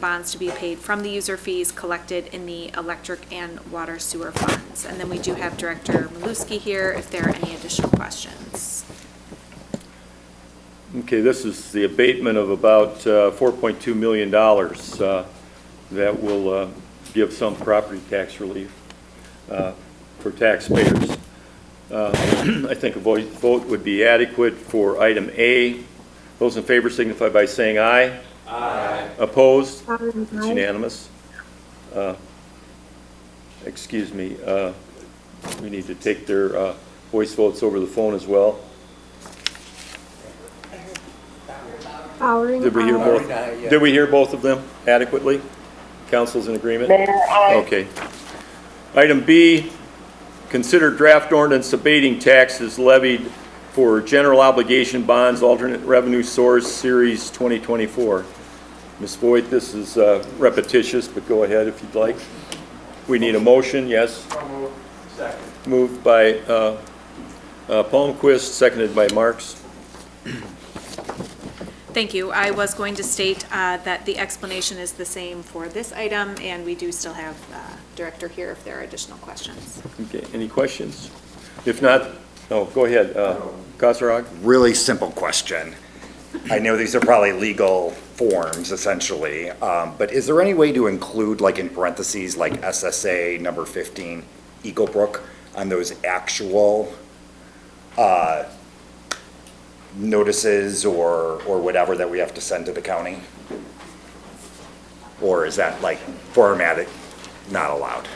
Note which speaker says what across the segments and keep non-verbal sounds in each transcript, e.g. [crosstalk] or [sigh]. Speaker 1: bonds to be paid from the user fees collected in the electric and water sewer funds. And then we do have Director Maluski here if there are any additional questions.
Speaker 2: Okay, this is the abatement of about uh, $4.2 million uh, that will uh, give some property tax relief uh, for taxpayers. Uh, [clears throat] I think a voice vote would be adequate for item A. Those in favor signify by saying aye. Aye. Opposed? It's unanimous. Uh, Excuse me, uh, we need to take their uh, voice votes over the phone as well.
Speaker 3: Bowering,
Speaker 2: Did we hear
Speaker 3: aye.
Speaker 2: both, did we hear both of them adequately? Council's in agreement? Okay. Item B, consider draft ordinance abating taxes levied for general obligation bonds, alternate revenue source, Series 2024. Ms. Voigt, this is uh, repetitious, but go ahead if you'd like. We need a motion, yes? Moved by uh, uh, Palmquist, seconded by Marks.
Speaker 1: Thank you. I was going to state uh, that the explanation is the same for this item, and we do still have uh, Director here if there are additional questions.
Speaker 2: Okay, any questions? If not, no, go ahead, uh, Kasserag.
Speaker 4: really simple question. I know these are probably legal forms essentially, um, but is there any way to include like in parentheses, like SSA number fifteen, Eagle Brook, on those actual, uh, notices or, or whatever that we have to send to the county? Or is that like formatted, not allowed?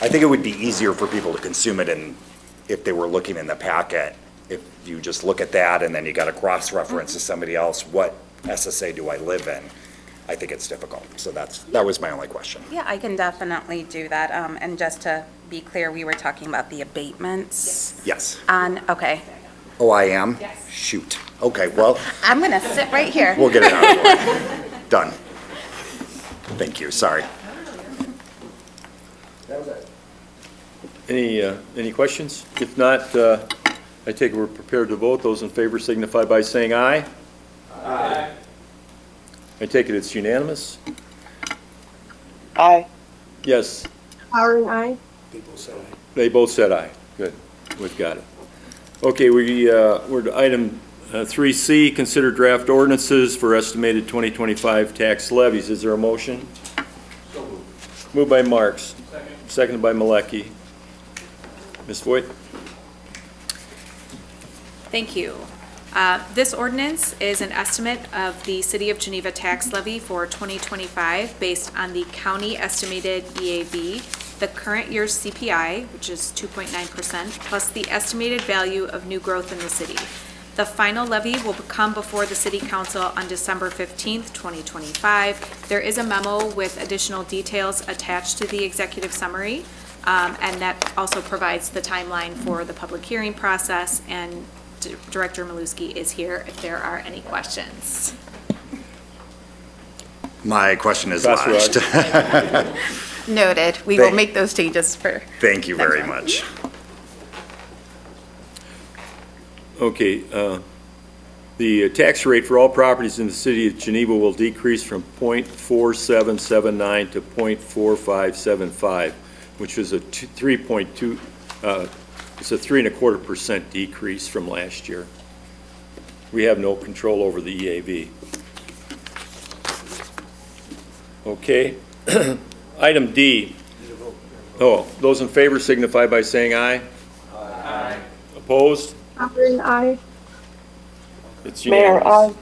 Speaker 4: I think it would be easier for people to consume it in, if they were looking in the packet. If you just look at that and then you got a cross-reference to somebody else, what SSA do I live in? I think it's difficult. So that's, that was my only question.
Speaker 5: Yeah, I can definitely do that. Um, And just to be clear, we were talking about the abatements
Speaker 4: Yes.
Speaker 5: on, okay.
Speaker 4: Oh, I am? Yes. Shoot. Okay, well,
Speaker 5: I'm going to sit right here.
Speaker 4: we'll get it out of the way. Done. Thank you, sorry.
Speaker 2: Any, uh, any questions? If not, uh, I take it we're prepared to vote. Those in favor signify by saying aye. Aye. I take it it's unanimous?
Speaker 6: Aye.
Speaker 2: Yes,
Speaker 3: Bowering, aye.
Speaker 2: they both said aye. Good, we've got it. Okay, we, uh, we're to item uh, 3C, consider draft ordinances for estimated 2025 tax levies. Is there a motion? moved. by Marks. Second. Seconded by Malecki. Ms. Voigt?
Speaker 1: Thank you. Uh, This ordinance is an estimate of the City of Geneva tax levy for 2025 based on the county estimated EAV, the current year's CPI, which is 2.9%, plus the estimated value of new growth in the city. The final levy will come before the City Council on December 15th, 2025. There is a memo with additional details attached to the executive summary, um, and that also provides the timeline for the public hearing process and D- Director Maluski is here if there are any questions.
Speaker 4: My question is lodged. [laughs]
Speaker 2: Kasserag?
Speaker 5: Noted. We
Speaker 4: will
Speaker 5: will
Speaker 4: Thank- make
Speaker 5: make those changes for.
Speaker 4: Thank you very much.
Speaker 2: Okay, uh, the tax rate for all properties in the city of Geneva will decrease from .4779 to .4575, which is a two- 3.2, uh, it's a three and a quarter percent decrease from last year. We have no control over the E EAV. Okay. [clears throat] Item D. Oh, those in favor signify by saying aye. Aye. Opposed?
Speaker 3: Bowering, aye.
Speaker 2: It's
Speaker 6: Mayor,
Speaker 2: unanimous.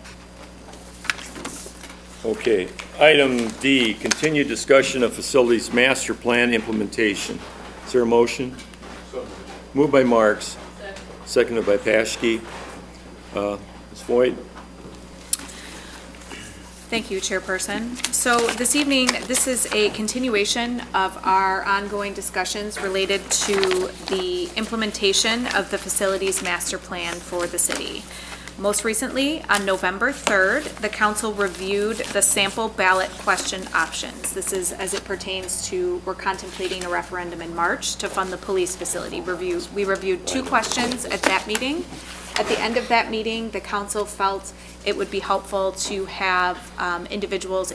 Speaker 6: aye.
Speaker 2: Okay. Item D, continued discussion of facilities master plan implementation. Is there a motion? Moved by Marks, seconded by Paschke. Uh, Ms. Voigt?
Speaker 1: Thank you, Chairperson. So this evening, this is a continuation of our ongoing discussions related to the implementation of the facilities master plan for the city. Most recently, on November 3rd, the council reviewed the sample ballot question options. This is as it pertains to, we're contemplating a referendum in March to fund the police facility review. We reviewed two questions at that meeting, At the end of that meeting, the council felt it would be helpful to have um, individuals